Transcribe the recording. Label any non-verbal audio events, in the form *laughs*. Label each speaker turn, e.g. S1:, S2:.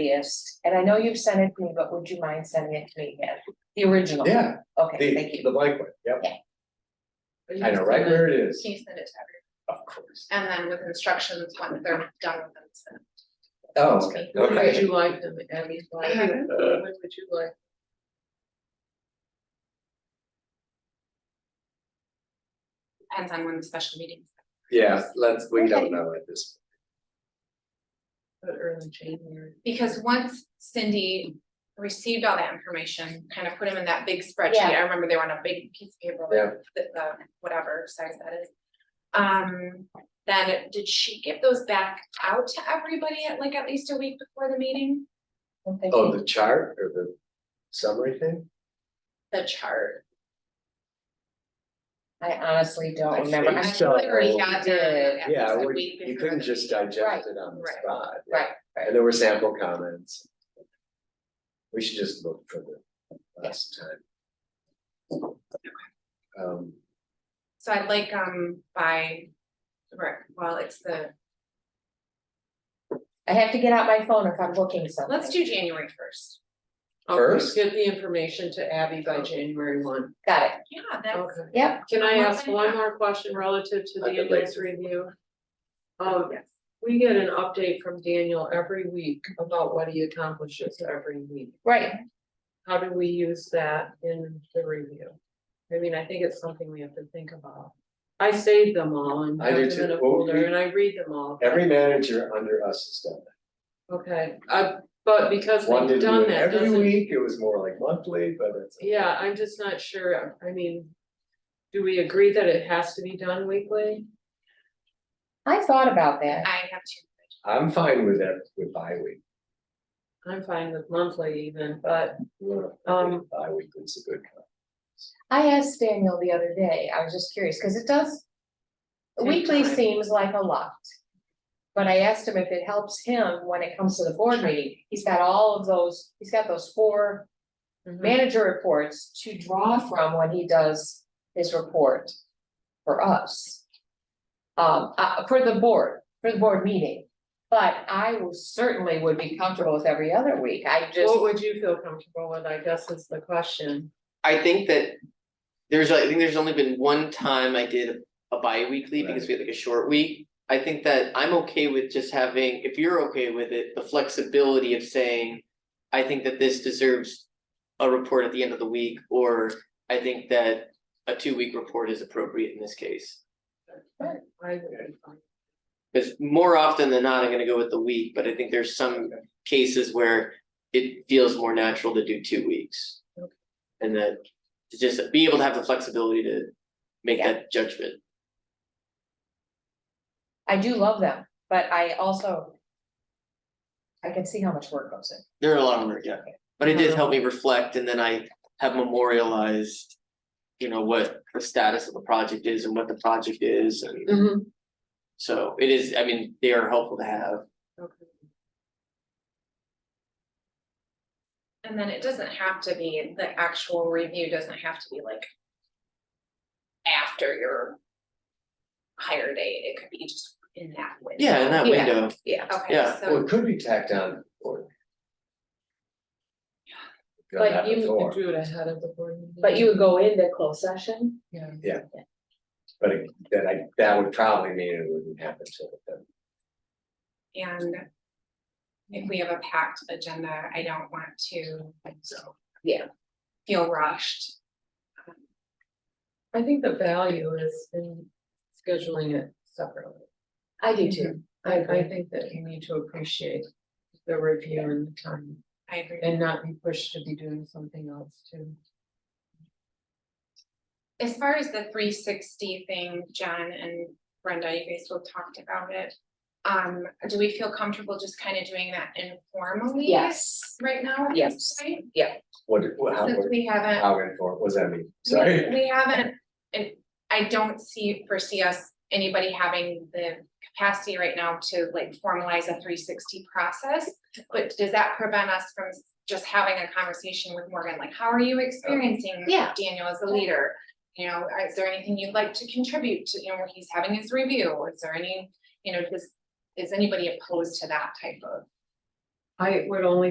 S1: handiest, and I know you've sent it to me, but would you mind sending it to me again? The original?
S2: Yeah,
S1: Okay, thank
S2: the,
S1: you.
S2: the blank one, yep,
S3: Or you
S2: I
S3: can
S2: know, right
S3: send it-
S2: where it is,
S3: Can you send it to
S2: of course.
S3: everyone? And then with instructions, when they're done with them, send it.
S2: Oh, okay,
S4: What would
S2: okay.
S4: you like them, Abby's like,
S3: Mhm.
S4: what would you like?
S3: Depends on when the special meeting.
S2: *laughs* Yeah, let's, we
S3: Okay.
S2: don't know at this.
S4: But early January.
S3: Because once Cindy received all that information, kind of put them in that big spreadsheet,
S1: Yeah.
S3: I remember they were on a big piece of paper.
S2: Yeah.
S3: The, the, whatever size that is. Um, then did she give those back out to everybody at like at least a week before the meeting?
S1: Thank
S2: Oh,
S1: you.
S2: the chart or the summary thing?
S3: The chart.
S1: I honestly
S2: I
S1: don't remember.
S2: think
S1: I
S2: so.
S3: I already got
S1: did.
S3: them at
S2: Yeah,
S3: least a
S2: we-
S3: week
S2: you
S3: before
S2: couldn't
S3: the
S2: just
S3: meeting.
S2: digest it on the
S3: Right.
S2: spot. yeah.
S1: Right, right.
S2: And there were sample comments. We should just look for the last time. Um,
S3: So I'd like, um, by, right, well, it's the,
S1: I have to get out my phone if I'm looking something.
S3: let's do January first.
S4: Okay,
S2: First?
S4: Get the information to Abby by January one.
S1: Got it.
S3: Yeah, that's.
S4: Okay.
S1: Yep.
S4: Can I ask one more question relative to the
S2: I could
S4: annual
S2: later.
S4: review? Um, we get an update from Daniel every week about what he accomplishes every week.
S1: Right.
S4: How do we use that in the review? I mean, I think it's something we have to think about. I save them all and
S2: I
S4: have
S2: do
S4: them in
S2: too.
S4: a
S2: Well, we-
S4: folder and I read them all. but-
S2: every manager under us has done that.
S4: Okay, uh, but because
S2: One
S4: they've
S2: did
S4: done
S2: it
S4: that,
S2: every
S4: doesn't,
S2: week, it was more like monthly, but it's.
S4: yeah, I'm just not sure, I mean. Do we agree that it has to be done weekly?
S1: I thought about that.
S3: I have two.
S2: I'm fine with that, with bi-week.
S4: I'm fine with monthly even, but, Um,
S2: Bi-weekly's a good one.
S1: I asked Daniel the other day, I was just curious, because it does.
S4: Take
S1: Weekly
S4: time.
S1: seems like a lot. But I asked him if it helps him when it comes to the board meeting, he's got all of those, he's got those four
S4: mhm,
S1: manager reports to draw from when he does his report. For us. Um, uh, for the board, for the board meeting, but I will- certainly would be comfortable with every other week, I just.
S4: what would you feel comfortable with, I guess is the question.
S5: I think that there's, I think there's only been one time I did a bi-weekly because we had like a short week. I think that I'm okay with just having, if you're okay with it, the flexibility of saying, I think that this deserves a report at the end of the week, or I think that a two-week report is appropriate in this case.
S4: I would be fine.
S5: Because more often than not, I'm gonna go with the week, but I think there's some cases where it feels more natural to do two weeks.
S4: Okay.
S5: And that, to just be able to have the flexibility to make
S1: Yeah.
S5: that judgment.
S1: I do love them, but I also. I can see how much work goes in.
S5: There are a lot of them, yeah, but it did help me reflect and then I have memorialized. You know, what the status of the project is and what the project is,
S4: Mm.
S5: and
S4: Mm-hmm.
S5: so it is, I mean, they are helpful to have.
S4: Okay.
S3: And then it doesn't have to be, the actual review doesn't have to be like. After your. Hire date, it could be just in that window.
S5: Yeah, in that window,
S3: Yeah, okay,
S5: Yeah,
S2: Well,
S3: so,
S2: it could be tacked on or. Done
S1: But
S2: that
S1: you-
S2: before,
S4: Do it ahead of the board meeting.
S1: But you would go into closed session?
S4: Yeah.
S2: but it- that I, that would probably mean it wouldn't happen till then.
S3: and. If we have a packed agenda, I don't want to.
S2: So.
S1: Yeah.
S3: Feel rushed.
S4: I think the value is in scheduling it separately.
S1: I do too.
S4: I, I think that you need to appreciate the review and the time.
S3: I agree.
S4: And not be pushed to be doing something else too.
S3: As far as the three sixty thing, John and Brenda, you guys both talked about it. Um, do we feel comfortable just kind of doing that informally?
S1: Yes,
S3: Right now? at
S1: Yes.
S3: this point?
S2: What, what- how,
S3: Since
S2: what-
S3: we haven't,
S2: how informed, what does that mean? Sorry.
S3: we, we haven't, and I don't see, foresee us, anybody having the capacity right now to like formalize a three sixty process. But does that prevent us from just having a conversation with Morgan, like, how are you experiencing
S1: Yeah.
S3: Daniel as a leader? You know, uh, is there anything you'd like to contribute to, you know, when he's having his review, is there any, you know, does, is anybody opposed to that type of
S4: I would only